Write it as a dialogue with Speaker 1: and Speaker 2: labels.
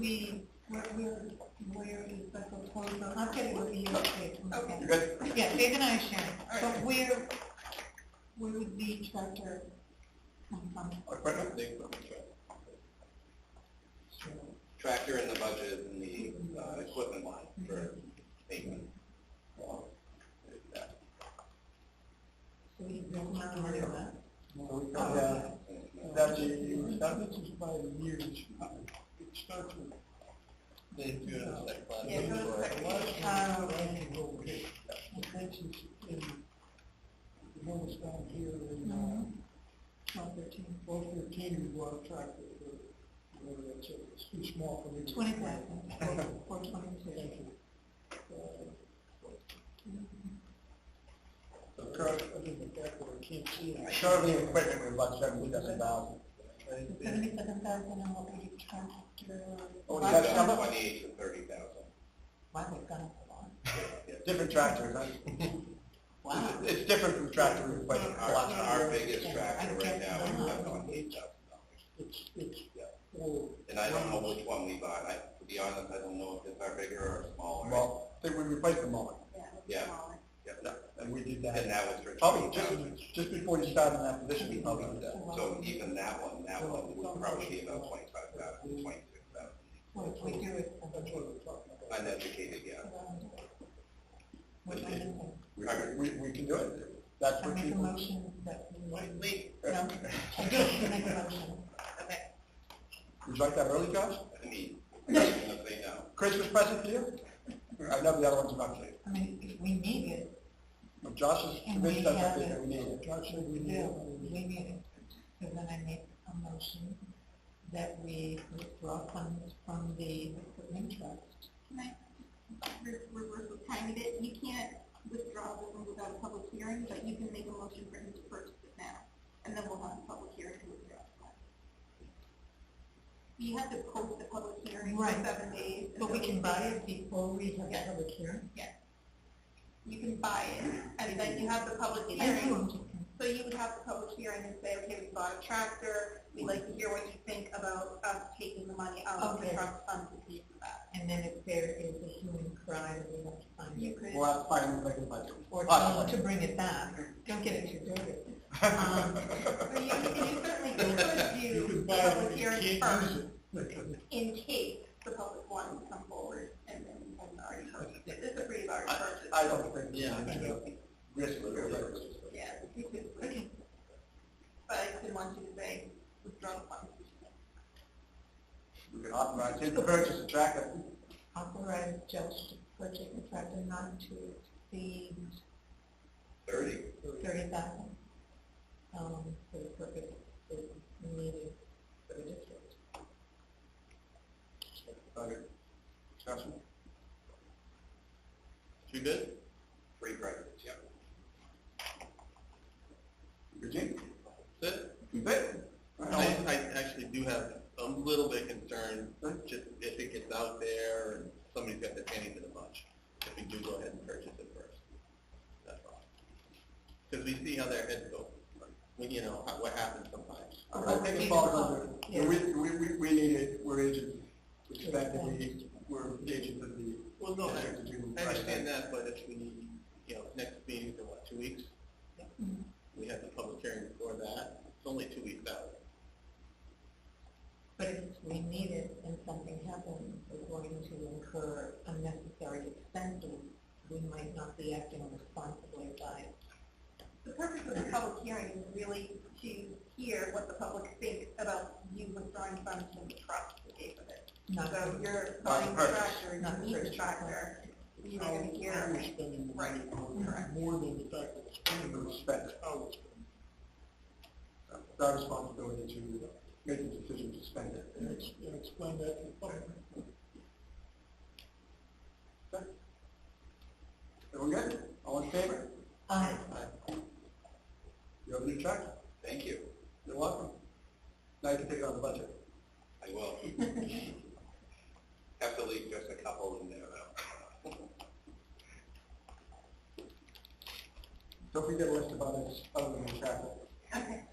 Speaker 1: we, we're, we're, where is that proposal? I'll get it with you.
Speaker 2: Okay.
Speaker 3: Good.
Speaker 1: Yeah, Dave and I share,
Speaker 2: All
Speaker 1: but
Speaker 2: right.
Speaker 1: where, where would the tractor come from?
Speaker 3: Equipment, the equipment track. Tractor in the budget and the, uh, equipment line for maintenance. Um, that.
Speaker 1: So we don't have to worry about that.
Speaker 2: Yeah, that's, a- that's just by the years, it starts with.
Speaker 3: They do it as like last
Speaker 1: Yeah,
Speaker 3: year.
Speaker 1: go to second.
Speaker 2: Last year, I can go get, that's just in, the ones down here in, uh,
Speaker 1: Twelve, thirteen,
Speaker 2: both thirteen, we go out track it, or whatever that's, it's too small for me. to-
Speaker 1: twenty thousand, or twenty-two.
Speaker 2: Thank you. The car, I think the back where I can't see it.
Speaker 3: Currently, equipment, we're about seventy-seven thousand.
Speaker 1: Seventy-seven thousand and what would you tractor?
Speaker 3: Twenty-eight to thirty thousand.
Speaker 1: Wow, we've gone up a lot.
Speaker 3: Different tractors, huh?
Speaker 1: Wow.
Speaker 3: It's different from tractor to equipment. Our, our biggest
Speaker 1: Yeah,
Speaker 3: tractor
Speaker 1: I
Speaker 3: right
Speaker 1: guess
Speaker 3: now
Speaker 1: I'm
Speaker 3: is
Speaker 1: not-
Speaker 3: seven hundred eight thousand dollars.
Speaker 2: It's, it's,
Speaker 3: Yeah.
Speaker 2: oh,
Speaker 3: And I don't know which one we bought. I, to be honest, I don't know if it's our bigger or smaller.
Speaker 4: Well, they would replace the mower,
Speaker 3: Yeah. Yeah, no,
Speaker 4: and we did
Speaker 3: and
Speaker 4: that.
Speaker 3: that was for
Speaker 4: Probably
Speaker 3: twenty thousand.
Speaker 4: just, just before you started in that position, we probably did that.
Speaker 3: So even that one, that one would probably be about twenty-five thousand, twenty-six thousand.
Speaker 1: Well, if we do it.
Speaker 2: that's what I'm talking about.
Speaker 3: Uneducated, yeah.
Speaker 1: What am I missing?
Speaker 4: We, we, we can do it. That's
Speaker 1: I
Speaker 4: what
Speaker 1: make a
Speaker 4: people,
Speaker 1: motion that we.
Speaker 3: Wait,
Speaker 1: No, I do make a motion. Okay.
Speaker 4: would you like that early, Josh?
Speaker 3: I mean, I'm gonna say no.
Speaker 4: Christmas present for you? I know the other one's about to,
Speaker 1: I mean, if we need it,
Speaker 4: but Josh is
Speaker 1: And we
Speaker 4: convinced that's
Speaker 1: have
Speaker 4: something that
Speaker 1: it.
Speaker 4: we need.
Speaker 2: Josh said
Speaker 1: we
Speaker 2: we
Speaker 1: do,
Speaker 2: need.
Speaker 1: we need it. So then I make a motion that we withdraw funds from the equipment trust.
Speaker 5: reverse the timing of it, you can't withdraw the one without a public hearing, but you can make a motion for him to purchase it now, and then we'll have a public hearing to withdraw the fund. You have to post the public hearing for
Speaker 1: Right.
Speaker 5: seven days. and
Speaker 1: But we
Speaker 5: then-
Speaker 1: can buy it before we have a public hearing.
Speaker 5: You can buy it, and then you have the public
Speaker 1: I do,
Speaker 5: hearing,
Speaker 1: I'm just-
Speaker 5: so you would have the public hearing and say, okay, we bought a tractor, we'd like to hear what you think about us taking the money out of the
Speaker 1: Okay.
Speaker 5: trust fund to pay for that.
Speaker 1: And then if there is a human cry, we have to find
Speaker 5: You
Speaker 1: it.
Speaker 5: could.
Speaker 4: We'll have to find a regular budget.
Speaker 1: Or tell them
Speaker 4: Possibly.
Speaker 1: to bring it back. Don't get it too dirty. Um,
Speaker 5: So you, you certainly could
Speaker 2: You
Speaker 5: do
Speaker 2: can
Speaker 5: the
Speaker 2: buy it,
Speaker 5: public
Speaker 2: but you
Speaker 5: hearing
Speaker 2: can't
Speaker 5: first
Speaker 2: use it. Because
Speaker 5: in case the public wanted to come forward and then and already purchased it. It's a pretty large purchase.
Speaker 4: I don't think, yeah,
Speaker 2: I don't
Speaker 4: risk of it.
Speaker 5: Yeah. you could- But I didn't want you to say withdraw the funds.
Speaker 4: We can authorize him to purchase a tractor.
Speaker 1: Authorize judge to purchase a tractor not to exceed
Speaker 3: Thirty.
Speaker 1: thirty thousand, um, for the purpose that is needed for the district.
Speaker 4: Other Discussion?
Speaker 3: You good? Three presidents, yeah.
Speaker 4: Eugene?
Speaker 3: That's it.
Speaker 4: You bet. All
Speaker 3: I,
Speaker 4: right.
Speaker 3: I actually do have a little bit concerned, just if it gets out there and somebody's got their panties in a bunch, if we do go ahead and purchase it first. That's all. Because we see how their heads go, We- you know, how- what happens sometimes.
Speaker 4: I think it falls under, and we, we, we, we need it, we're agents, we expect that we, we're agents of the.
Speaker 3: Well, no, I,
Speaker 4: district to do
Speaker 3: I understand
Speaker 4: right.
Speaker 3: that, but if we, need, you know, next meeting's in what, two weeks? We have the public hearing before that, it's only two weeks out.
Speaker 1: But if we need it and something happens, we're going to incur unnecessary expenses. We might not be acting responsibly by
Speaker 5: The purpose of the public hearing is really to hear what the public thinks about you withdrawing funds from the trust to pay for this.
Speaker 1: not.
Speaker 5: So
Speaker 4: Not
Speaker 5: you're
Speaker 4: the
Speaker 5: buying the
Speaker 4: purchase.
Speaker 5: tractor,
Speaker 1: Not the
Speaker 5: you need the
Speaker 1: purchase. Oh,
Speaker 5: tractor, you're
Speaker 4: Oh,
Speaker 2: how,
Speaker 5: gonna
Speaker 2: how we're
Speaker 5: hear.
Speaker 2: spending the money,
Speaker 5: Right.
Speaker 2: on more than the fact that it's spending,
Speaker 4: We
Speaker 2: but it's
Speaker 4: respect
Speaker 2: how we're spending.
Speaker 4: Oh. It's our responsibility to make the decision to spend it.
Speaker 2: And it's, and explain that to the public.
Speaker 4: Are we good? All in favor?
Speaker 1: Uh,
Speaker 4: You have a new check?
Speaker 3: Thank you.
Speaker 4: You're welcome. Now you can take it on the budget.
Speaker 3: I will. Have to leave just a couple in there though.
Speaker 4: Don't forget the list of others, other than the traffic.
Speaker 5: Okay.